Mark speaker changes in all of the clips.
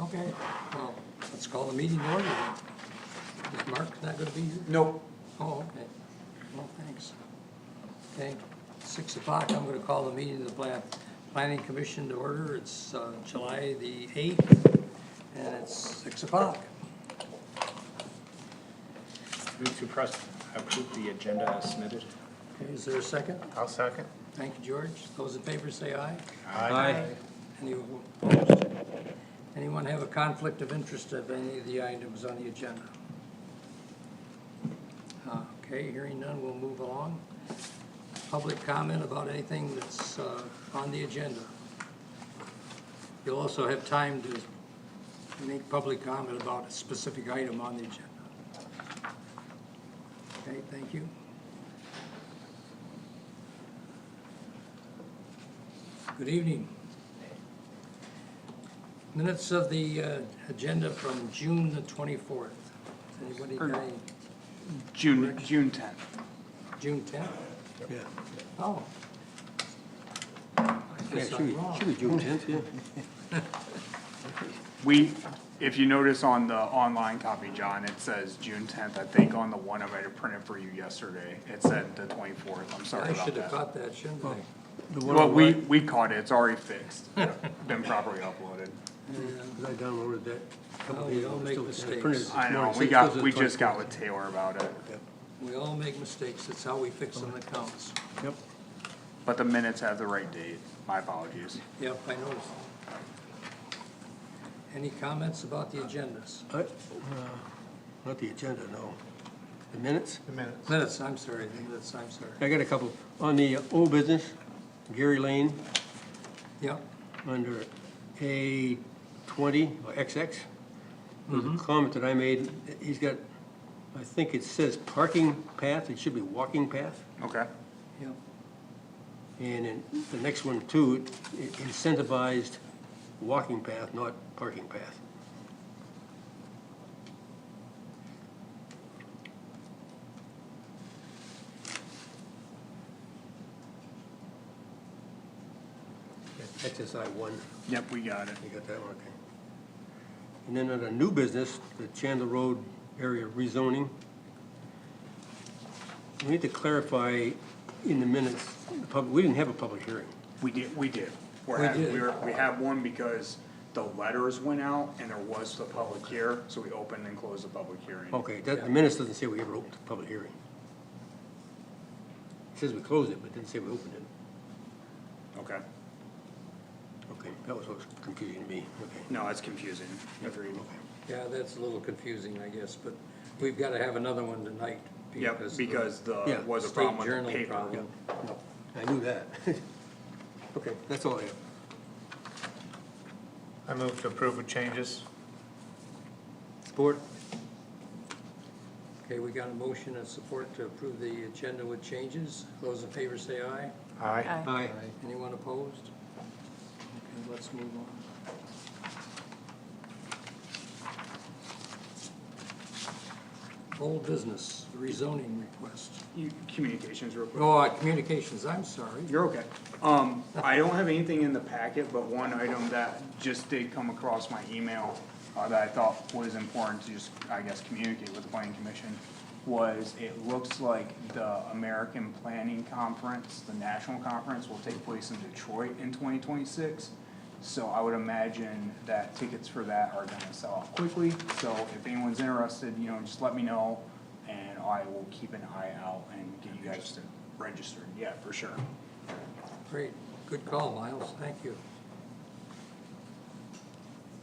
Speaker 1: Okay, well, let's call the meeting order. then. Is Mark not gonna be here?
Speaker 2: Nope.
Speaker 1: Oh, okay. Well, thanks. Okay, six o'clock, I'm gonna call the meeting of the Plan- Planning Commission to order. It's uh, July the eighth, and it's six o'clock.
Speaker 3: Move to press, approve the agenda as submitted.
Speaker 1: Okay, is there a second?
Speaker 4: I'll second.
Speaker 1: Thank you, George. Those in favor say aye.
Speaker 2: Aye.
Speaker 1: Any opposed? Anyone have a conflict of interest of any of the items on the agenda? Uh, Okay, hearing none, we'll move along. Public comment about anything that's uh, on the agenda. You'll also have time to make public comment about a specific item on the agenda. Okay, thank you. Good evening. Minutes of the uh, agenda from June the 24th. Has Anybody got any,
Speaker 5: June, June tenth.
Speaker 1: June 10th?
Speaker 2: Yeah.
Speaker 1: Oh. I guess I'm wrong.
Speaker 2: June tenth, yeah.
Speaker 5: We, if you notice on the online copy, John, it says June tenth, I think on the one I might have printed for you yesterday, it said the twenty-fourth, I'm sorry
Speaker 1: I
Speaker 5: about
Speaker 1: should have
Speaker 5: that. Oh.
Speaker 1: caught that, shouldn't I?
Speaker 2: The one
Speaker 5: Well, we,
Speaker 2: online,
Speaker 5: we caught it, it's already fixed, been properly uploaded.
Speaker 2: 'cause I downloaded that. a couple
Speaker 1: Oh,
Speaker 2: days
Speaker 1: you
Speaker 2: ago.
Speaker 1: don't
Speaker 2: I
Speaker 1: make
Speaker 2: still had it printed
Speaker 1: mistakes.
Speaker 2: this
Speaker 5: I know,
Speaker 2: morning, so
Speaker 5: we
Speaker 2: it
Speaker 5: got,
Speaker 2: says
Speaker 5: we
Speaker 2: it's oh
Speaker 5: just got
Speaker 2: 24th.
Speaker 5: with Taylor about it,
Speaker 1: We all make mistakes. It's how we fix them that counts.
Speaker 2: Yep.
Speaker 5: but the minutes have the right date, my apologies.
Speaker 1: Yep, I noticed. Any comments about the agendas?
Speaker 2: I- uh, Not the agenda, no. The minutes?
Speaker 4: The minutes.
Speaker 1: Minutes, I'm sorry, the minutes, I'm sorry.
Speaker 2: I got a couple. On the uh, old business, Gary Lane,
Speaker 1: Yep,
Speaker 2: under A twenty, or XX. There's a comment that I made, he's got, I think it says parking path, it should be walking path.
Speaker 5: Okay,
Speaker 1: yep,
Speaker 2: And in the next one too, it incentivized walking path, not parking path. XSI one,
Speaker 5: yep, we got it.
Speaker 2: you got that one, okay. And then on a new business, the Chandler Road area rezoning. We need to clarify in the minutes, the pub, we didn't have a public hearing.
Speaker 5: We did, we did. We're
Speaker 1: We
Speaker 5: hav-
Speaker 1: did.
Speaker 5: we were, we had one because the letters went out and there was the public here, so we opened and closed the public hearing.
Speaker 2: Okay, that, the minutes doesn't say we ever opened a public hearing. It says we closed it, but it didn't say we opened it.
Speaker 5: Okay,
Speaker 2: Okay, that was what was confusing to me, okay.
Speaker 5: no, that's confusing, agreed.
Speaker 1: yeah, that's a little confusing, I guess, but we've got to have another one tonight.
Speaker 5: Yep,
Speaker 1: of
Speaker 5: because the,
Speaker 2: Yeah,
Speaker 5: was a
Speaker 1: state
Speaker 5: problem with
Speaker 1: journal
Speaker 5: the paper.
Speaker 1: problem.
Speaker 2: I knew that. Okay, that's all I have.
Speaker 4: I move to approve with changes.
Speaker 2: Support?
Speaker 1: Okay, we got a motion and support to approve the agenda with changes. Those in favor say aye.
Speaker 4: Aye.
Speaker 2: Aye.
Speaker 1: Anyone opposed? Okay, let's move on. Old business, rezoning request.
Speaker 5: You- Communications real quick.
Speaker 1: Oh, uh, communications, I'm sorry.
Speaker 5: You're okay. Um, I don't have anything in the packet, but one item that just did come across my email, uh, that I thought was important to just, I guess, communicate with the planning commission, was it looks like the American Planning Conference, the national conference, will take place in Detroit in twenty twenty-six. So I would imagine that tickets for that are gonna sell off quickly, so if anyone's interested, you know, just let me know, and I will keep an eye out and get you guys to register, yeah, for sure.
Speaker 1: Great, good call, Miles, thank you.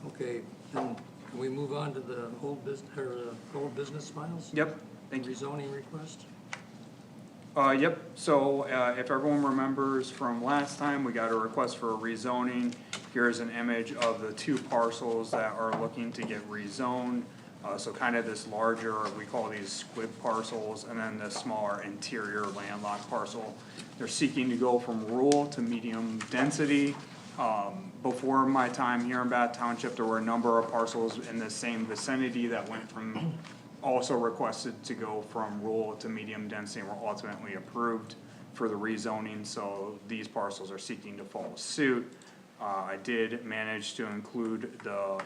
Speaker 1: Okay, then can we move on to the old business, or uh, old business, Miles?
Speaker 5: Yep, thank you.
Speaker 1: Rezoning request?
Speaker 5: Uh, yep, so, uh, if everyone remembers from last time, we got a request for a rezoning. Here's an image of the two parcels that are looking to get rezoned. Uh, so kind of this larger, we call these squib parcels, and then the smaller interior landlocked parcel. They're seeking to go from rural to medium density. Um, before my time here in Bath Township, there were a number of parcels in the same vicinity that went from, also requested to go from rural to medium density and were ultimately approved for the rezoning, so these parcels are seeking to follow suit. Uh, I did manage to include the